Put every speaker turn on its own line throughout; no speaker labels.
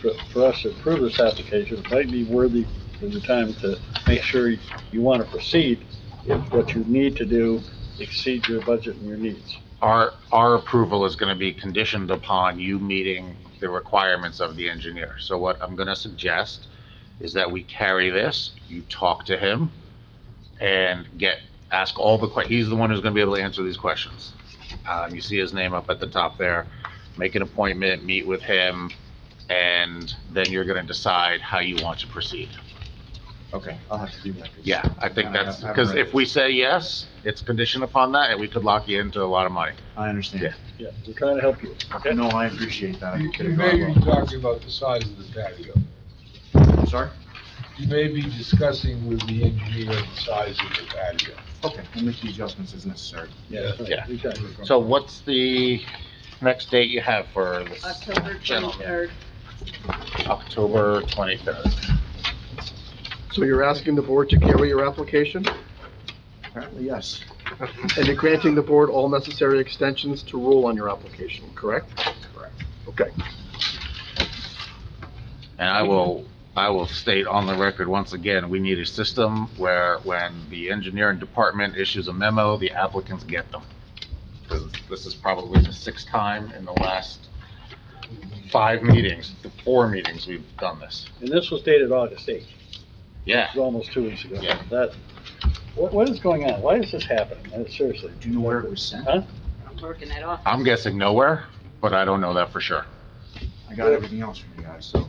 for, for us to approve this application, it might be worthy of your time to make sure you want to proceed if what you need to do exceeds your budget and your needs.
Our, our approval is going to be conditioned upon you meeting the requirements of the engineer. So what I'm going to suggest is that we carry this, you talk to him, and get, ask all the que, he's the one who's going to be able to answer these questions. Um, you see his name up at the top there. Make an appointment, meet with him, and then you're going to decide how you want to proceed.
Okay, I'll have to do that.
Yeah, I think
I- I
that's,
haven't
because
read it.
if we say yes, it's conditioned upon that, and we could lock you into a lot of money.
I understand.
Yeah, we're trying to help you.
No, I appreciate that. I
You
could
you
have
may
gone
be
wrong.
talking about the size of the patio.
I'm Sorry?
You may be discussing with the engineer the size of the patio.
Okay, we'll make the adjustments as necessary.
Yeah.
We got you.
So what's the next date you have for this?
October
gentleman?
twenty-third.
October 23rd.
So you're asking the board to carry your application,
Apparently, yes.
and you're granting the board all necessary extensions to rule on your application, correct?
Correct.
Okay.
And I will, I will state on the record once again, we need a system where when the engineering department issues a memo, the applicants get them. 'Cause This is probably the sixth time in the last five meetings, the four meetings we've done this.
And this was dated August eighth,
Yeah,
it was almost two weeks ago.
Yeah.
That, what, what is going on? Why is this happening? Uh, Seriously.
Do you know where it was sent?
Huh?
I'm working it off.
I'm guessing nowhere, but I don't know that for sure.
I got everything else from you guys, so,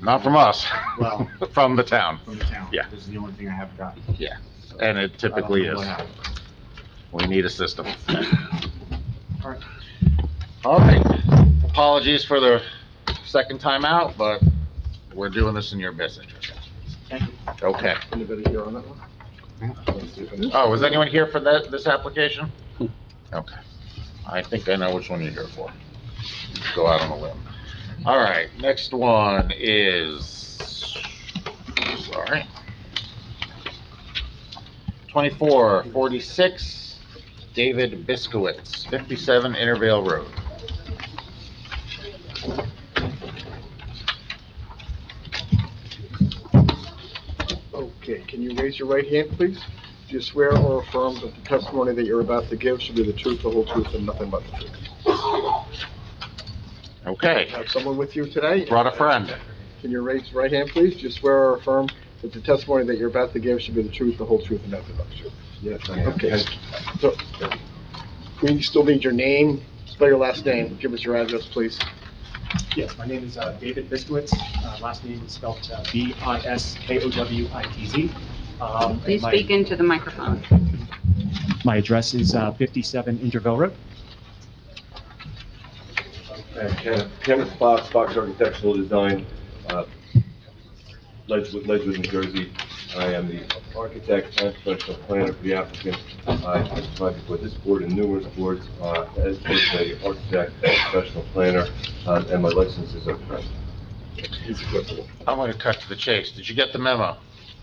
Not from us,
Well-
from the town,
from the town.
Yeah.
This is the only thing I haven't gotten.
and it typically
I don't
is.
know what happened.
We need a system.
All right.
All right, apologies for the second time out, but we're doing this in your best interest.
Thank you.
Okay.
Anybody here on that one?
Oh, was anyone here for that, this application? Okay. I think I know which one you're here for. Go out on a limb. All right, next one is, sorry. Twenty-four forty-six, David Biskowitz, fifty-seven Intervale Road.
Okay, can you raise your right hand, please? Do you swear or affirm that the testimony that you're about to give should be the truth, the whole truth, and nothing but the truth?
Okay,
Have someone with you today?
brought a friend.
Can you raise your right hand, please? Do you swear or affirm that the testimony that you're about to give should be the truth, the whole truth, and nothing but the truth?
Yes, I am.
Okay. So, we still need your name, spell your last name, give us your address, please.
Yes, my name is uh, David Biskowitz. Uh, Last name is spelled uh, B-I-S-K-O-W-I-T-Z. Um, and
Please
my-
speak into the microphone.
My address is uh, 57 Interville Road.
Uh, Ken- Kenneth Fox, Fox Architectural Design, uh, Ledgewood, Ledgewood, New Jersey. I am the architect and professional planner for the applicant. I testified before this board and numerous boards uh, as both a architect and professional planner, uh, and my licenses are present.
I'm gonna cut to the chase. Did you get the memo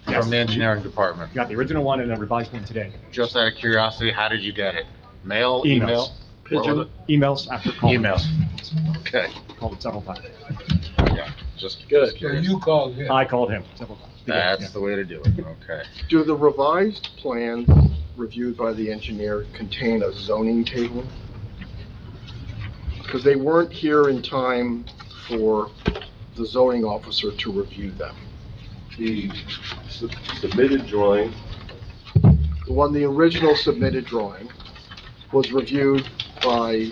Yes.
from the engineering department?
Got the original one and a revised one today.
Just out of curiosity, how did you get it? Mail,
Emails.
email? What was it?
Emails after call.
Emails. Okay,
Called it several times.
yeah, just.
Good.
just
So
curious.
you called him.
I called him several times.
That's the way to do it, okay.
Do the revised plans reviewed by the engineer contain a zoning table? Because they weren't here in time for the zoning officer to review them.
The su- submitted drawing
The one, the original submitted drawing was reviewed by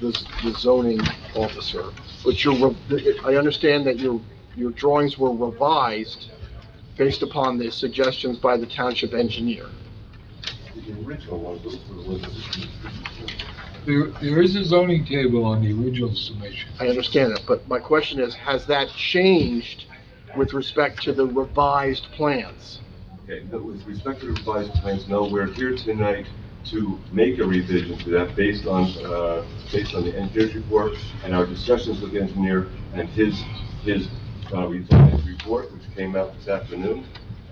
the z- the zoning officer, but your, re- I understand that your, your drawings were revised based upon the suggestions by the township engineer.
The original one was, was-
There, there is a zoning table on the original submission.
I understand that, but my question is, has that changed with respect to the revised plans?
Okay, but with respect to the revised plans, no, we're here tonight to make a revision to that based on, uh, based on the engineer's report and our discussions with the engineer and his, his, uh, revised report, which came out this afternoon.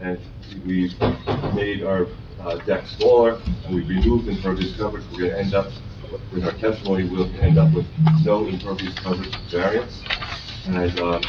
And we made our uh, deck smaller and we removed impervious coverage. We're gonna end up, with our testimony, we'll end up with no impervious coverage variance. And, uh,